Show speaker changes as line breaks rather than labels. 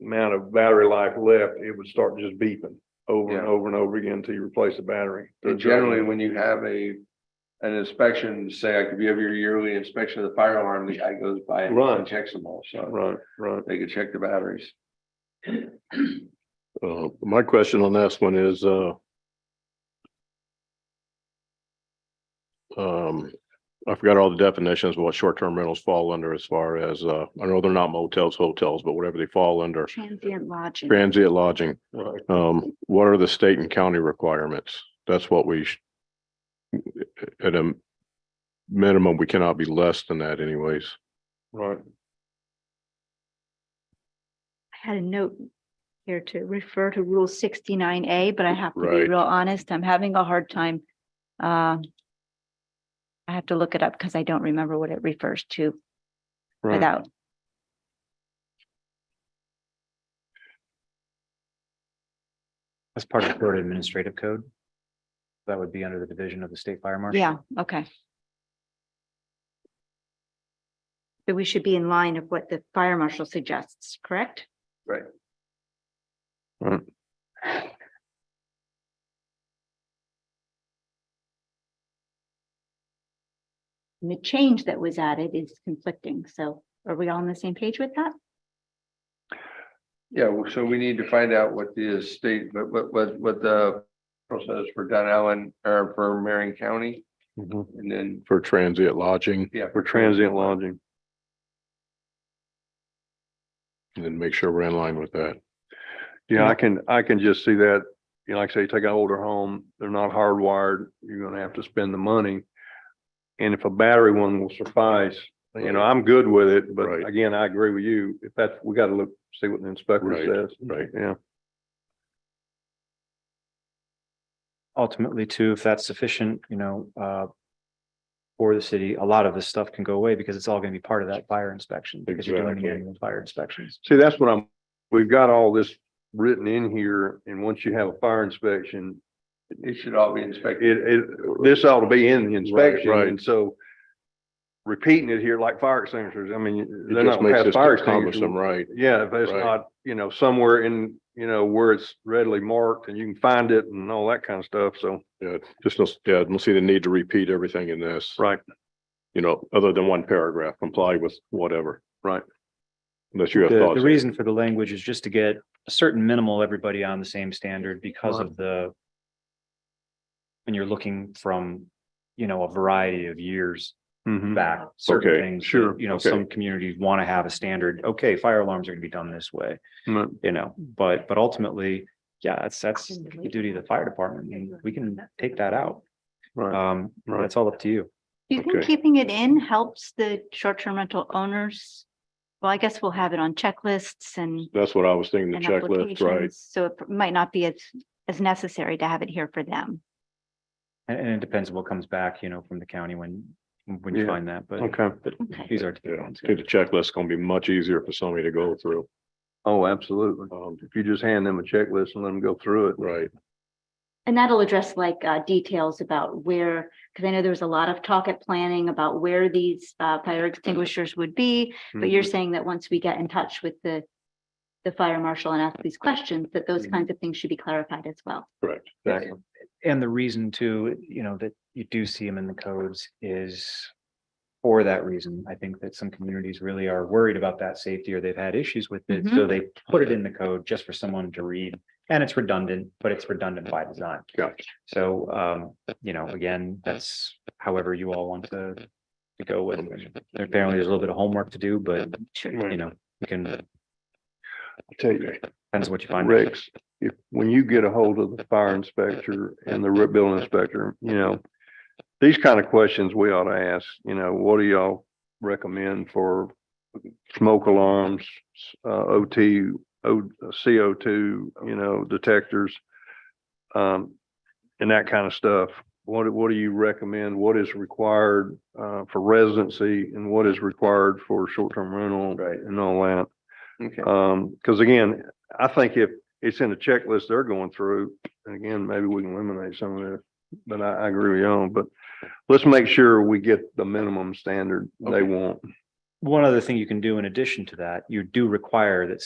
amount of battery life left, it would start just beeping over and
Yeah.
over and over again until you replace the battery.
And generally, when you have a, an inspection, say, like if you have your yearly inspection of the fire alarm, the guy goes by
Right.
and checks them all, so
Right, right.
they could check the batteries.
Uh, my question on this one is, uh, um, I forgot all the definitions of what short-term rentals fall under as far as, uh, I know they're not motels, hotels, but whatever they fall under,
Transient lodging.
transient lodging.
Right.
Um, what are the state and county requirements? That's what we sh- at a minimum, we cannot be less than that anyways.
Right.
I had a note here to refer to Rule sixty-nine A, but I have to be
Right.
real honest, I'm having a hard time. uh, I have to look it up because I don't remember what it refers to
Right.
without.
That's part of the Florida Administrative Code. That would be under the division of the State Fire Marshal.
Yeah, okay. So we should be in line of what the fire marshal suggests, correct? And the change that was added is conflicting, so are we all on the same page with that?
Yeah, well, so we need to find out what the state, what, what, what, what the process for Dunn Allen, or for Marion County,
Mhm.
and then,
For transient lodging
yeah.
For transient lodging.
and then make sure we're in line with that.
Yeah,
Mm-hmm.
I can, I can just see that, you know, like I say, you take an older home, they're not hardwired, you're gonna have to spend the money. And if a battery one will suffice, you know, I'm good with it, but
Right.
again, I agree with you. If that's, we gotta look, see what the
Right,
inspector says.
right.
Yeah,
Ultimately, too, if that's sufficient, you know, uh. For the city, a lot of this stuff can go away because it's all going to be part of that fire inspection because you're doing
Exactly.
the annual fire inspections.
see, that's what I'm, we've got all this written in here, and once you have a fire inspection,
It should all be inspected.
it, it, this ought to be in the inspection,
right.
and so repeating it here like fire extinguishers, I mean,
It
they're
just
not gonna
makes
pass
this
fire extinguishers.
cumbersome, right?
Yeah, if it's
Right.
not, you know, somewhere in, you know, where it's readily marked and you can find it and all that kind of stuff, so.
Yeah, just, don't- yeah, don't see the need to repeat everything in this.
Right.
You know, other than one paragraph, comply with whatever.
Right.
Unless you have
The,
thoughts.
the reason for the language is just to get a certain minimal, everybody on the same standard because of the. When you're looking from, you know, a variety of years
mhm,
back, certain
Okay,
things. that,
sure,
You know,
okay.
some communities want to have a standard, okay, fire alarms are gonna be done this way.
Right.
You know, but, but ultimately, yeah, that's, that's the duty of the fire department, and we can take that out.
Right.
Um,
Right.
that's all up to you.
Do you think
Okay.
keeping it in helps the short-term rental owners? Well, I guess we'll have it on checklists and.
That's what I was thinking, the
and
checklist, right?
applications, So it might not be as, as necessary to have it here for them.
And, and it depends what comes back, you know, from the county when, when you
Yeah.
find that, but,
Okay,
but
Okay.
these are.
Yeah, I think the checklist is gonna be much easier for somebody to go through.
oh, absolutely.
Um,
If you just hand them a checklist and let them go through it.
right,
And that'll address like uh, details about where, because I know there was a lot of talk at planning about where these uh, fire extinguishers would be. But
Mm-hmm.
you're saying that once we get in touch with the, the fire marshal and ask these questions, that those
Mm-hmm.
kinds of things should be clarified as well.
correct.
Exactly.
And the reason too, you know, that you do see them in the codes is for that reason. I think that some communities really are worried about that safety or they've had issues with it. So they put it in the code just for someone to read. And it's redundant, but it's redundant by design.
Gotcha.
So, um, you know, again, that's however you all want to to go with. it. Apparently, there's a little bit of homework to do, but
Sure.
you know, you can, depends
I'll tell you,
what you find.
Rex, if, when you get a hold of the fire inspector and the re- building inspector, you know, these kind of questions we ought to ask, you know, what do y'all recommend for smoke alarms, uh, OT, O, CO2, you know, detectors? Um, and that kind of stuff. What, do- what do you recommend? What is required, uh, for residency and what is required for short-term rental?
Right.
And all that.
Okay.
Um, because again, I think if it's in a checklist they're going through, and again, maybe we can eliminate some of this. But I, I agree with you on, but let's make sure we get the minimum standard they
Okay.
want.
One other thing you can do in addition to that, you do require that